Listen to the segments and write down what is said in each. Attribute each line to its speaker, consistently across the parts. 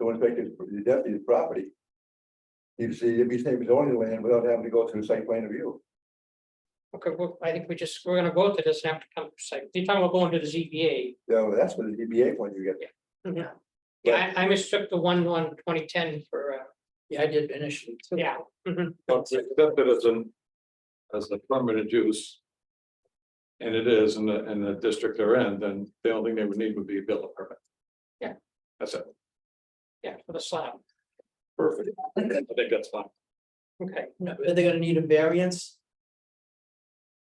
Speaker 1: wouldn't take his, the deputy's property. He'd see, it'd be same as owning land without having to go through site plan review.
Speaker 2: Okay, well, I think we just, we're gonna go to this and have to come to site. You're talking about going to the ZBA.
Speaker 1: So that's what the DBA point you get.
Speaker 2: Yeah, I, I mistook the one on twenty ten for, uh,
Speaker 3: Yeah, I did initially. too. Oh,
Speaker 2: yeah. mhm.
Speaker 4: But accepted as an, as a permitted use. And it is in the, in the district they're in, then the only thing they would need would be a building permit.
Speaker 2: Yeah.
Speaker 4: That's it,
Speaker 2: Yeah, for the slab.
Speaker 4: perfect, I think that's fine,
Speaker 2: Okay,
Speaker 3: No, Are they gonna need a variance?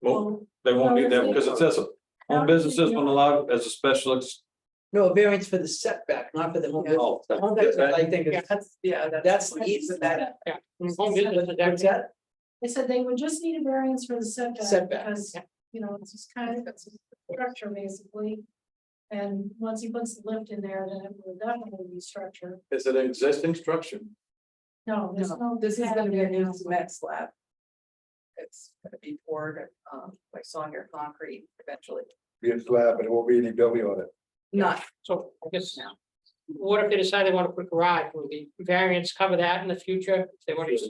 Speaker 5: Oh.
Speaker 4: well, they won't need that, because it says, home businesses will allow as a special. ex-
Speaker 3: No, a variance for the setback, not for the home. business.
Speaker 4: Oh,
Speaker 3: The Home
Speaker 4: that-
Speaker 3: business,
Speaker 4: that-
Speaker 3: I think,
Speaker 2: Yeah.
Speaker 3: is- that's, yeah, that's the easement that.
Speaker 2: home business is
Speaker 3: Mm, What's that?
Speaker 6: They said they would just need a variance for the setback
Speaker 3: Setback,
Speaker 6: because,
Speaker 2: yeah.
Speaker 6: you know, it's just kind of, it's a structure basically. And once he puts the lift in there, then it will definitely be structure.
Speaker 4: Is it an existing structure?
Speaker 6: No, there's no.
Speaker 5: This is gonna be a
Speaker 6: pad there now.
Speaker 5: new cement slab. It's gonna be poured, um, like sawyer concrete eventually,
Speaker 1: Be a slab, but it won't be any building on it.
Speaker 5: not
Speaker 2: so I guess
Speaker 5: now.
Speaker 2: what if they decide they want to put a garage? Will the variance cover that in the future? If They want to,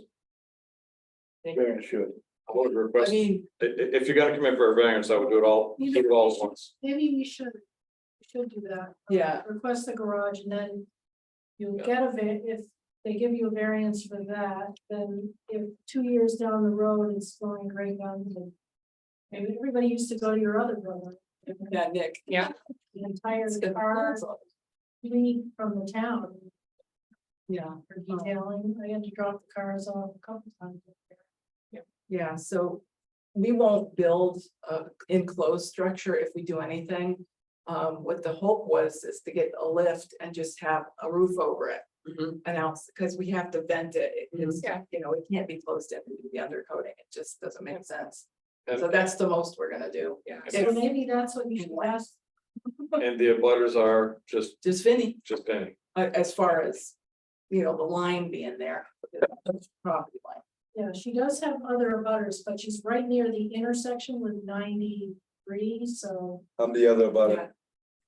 Speaker 1: Variance should.
Speaker 4: I would
Speaker 3: I
Speaker 4: request, i-
Speaker 3: mean,
Speaker 4: i- if you're gonna come in for a variance, I would do it all, do it all at once.
Speaker 6: Maybe we should, we should do that. Um,
Speaker 5: Yeah.
Speaker 6: Request the garage and then you get a, va- if they give you a variance for that, then if two years down the road it's going great down the. Maybe everybody used to go to your other brother.
Speaker 5: Yeah, Nick.
Speaker 6: The entire
Speaker 5: it's gonna be
Speaker 6: car
Speaker 5: awesome.
Speaker 6: fleet from the town
Speaker 5: Yeah,
Speaker 6: for detailing. I had to drop the cars off a couple times.
Speaker 5: yeah, so we won't build a enclosed structure if we do anything. Um, what the hope was is to get a lift and just have a roof over it,
Speaker 3: mhm,
Speaker 5: an ounce, because we have to vent it. It- It's,
Speaker 2: Mhm. Yeah.
Speaker 5: you know, it can't be closed in, the undercoating, it just doesn't make sense.
Speaker 4: And-
Speaker 5: So that's the most we're gonna do,
Speaker 2: yeah.
Speaker 6: So maybe that's what you should ask.
Speaker 4: And the abutters are just,
Speaker 5: just Vinny.
Speaker 4: just any,
Speaker 5: a- as far as, you know, the line being there. the Property line,
Speaker 6: Yeah, she does have other butters, but she's right near the intersection with ninety-three, so
Speaker 1: I'm the other about it.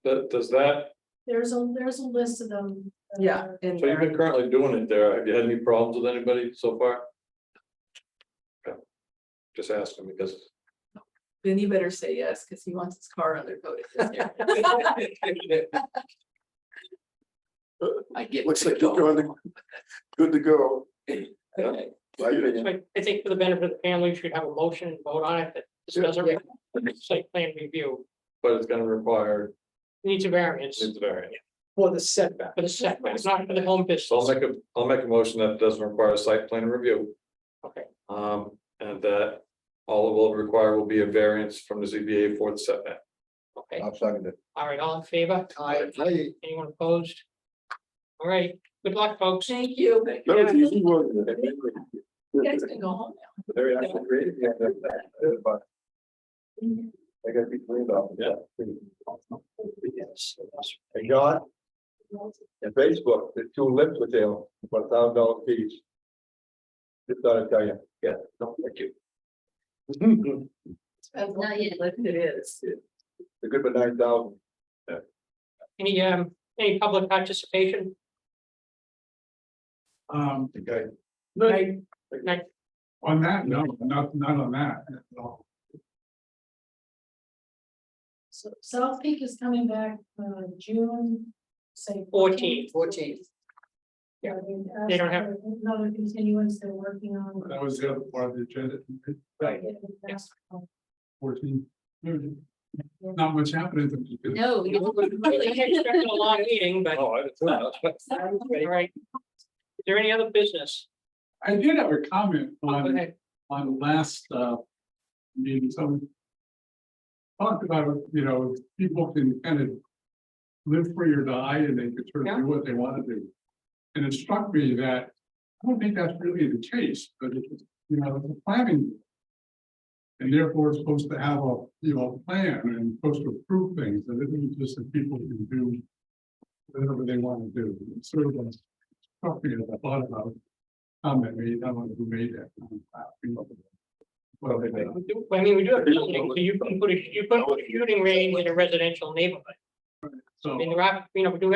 Speaker 4: Th- does that,
Speaker 6: there's a, there's a list of them. Uh, that
Speaker 5: yeah,
Speaker 6: are-
Speaker 5: in
Speaker 4: so you've
Speaker 5: there,
Speaker 4: been currently doing it there, have you had any problems with anybody so far? Okay. Just asking because
Speaker 5: then you better say yes, because he wants his car undercoated this year.
Speaker 3: I get.
Speaker 7: Looks
Speaker 3: to
Speaker 7: like
Speaker 3: go.
Speaker 7: you're going to, good to go.
Speaker 5: Okay.
Speaker 1: My opinion.
Speaker 2: So I- I think for the benefit of the family, we should have a motion and vote on it that this doesn't
Speaker 5: Yeah.
Speaker 2: require site plan review.
Speaker 4: But it's gonna require
Speaker 2: Needs a variance
Speaker 4: needs a variance.
Speaker 3: For the setback.
Speaker 2: for the setback, it's not for the home
Speaker 4: So
Speaker 2: business.
Speaker 4: I'll make a, I'll make a motion that doesn't require a site plan review.
Speaker 2: Okay.
Speaker 4: Um, and that all it will require will be a variance from the ZBA for the setback.
Speaker 2: Okay,
Speaker 1: I'm second it.
Speaker 2: all right, all in favor?
Speaker 3: I,
Speaker 2: Anyone opposed? All right, good luck, folks.
Speaker 5: Thank you.
Speaker 7: That was easy, wasn't it?
Speaker 5: You guys can go home
Speaker 1: Very actually creative. yeah, that- that- but They gotta be cleaned up.
Speaker 4: Yeah.
Speaker 1: Yes. And John,
Speaker 5: now.
Speaker 1: and Facebook, the two lips with them, for a thousand dollar fees. Just thought I'd tell you. Yeah, no, thank you.
Speaker 5: Not yet, but it is.
Speaker 1: The good for nine thousand.
Speaker 2: Any, um, any public participation?
Speaker 8: Um,
Speaker 1: Okay.
Speaker 2: Right. Right.
Speaker 8: on that, no, not, not on that at all.
Speaker 6: So South Peak is coming back, uh, June, say.
Speaker 2: 14th.
Speaker 3: 14th.
Speaker 6: Yeah, they asked
Speaker 2: They don't have-
Speaker 6: for Another continuance they're working on.
Speaker 8: That was the other part of the agenda,
Speaker 3: Right.
Speaker 2: Yes.
Speaker 8: fourteen. Not much happening. to-
Speaker 5: No.
Speaker 2: Really expected a long meeting, but, all
Speaker 4: Oh, I didn't know that.
Speaker 2: right. Is there any other business?
Speaker 8: I did have a comment
Speaker 2: Go
Speaker 4: Um,
Speaker 8: on,
Speaker 2: ahead.
Speaker 8: on the last, uh, meeting, some. Talked about, you know, people can kind of live free or die and they can sort of do what they want to do. And it struck me that, I don't think that's really the case, but it's, you know, it's a planning. And therefore it's supposed to have a, you know, a plan and supposed to approve things, and it isn't just that people can do whatever they want to do. It's sort of like struck me as I thought about. Comment made, I don't know who made that. comment, I don't know. Well, they made.
Speaker 2: We do- I mean, we do have buildings, so you can put a, you put a shooting range in a residential neighborhood. I
Speaker 8: So.
Speaker 2: mean, there are, you know, we do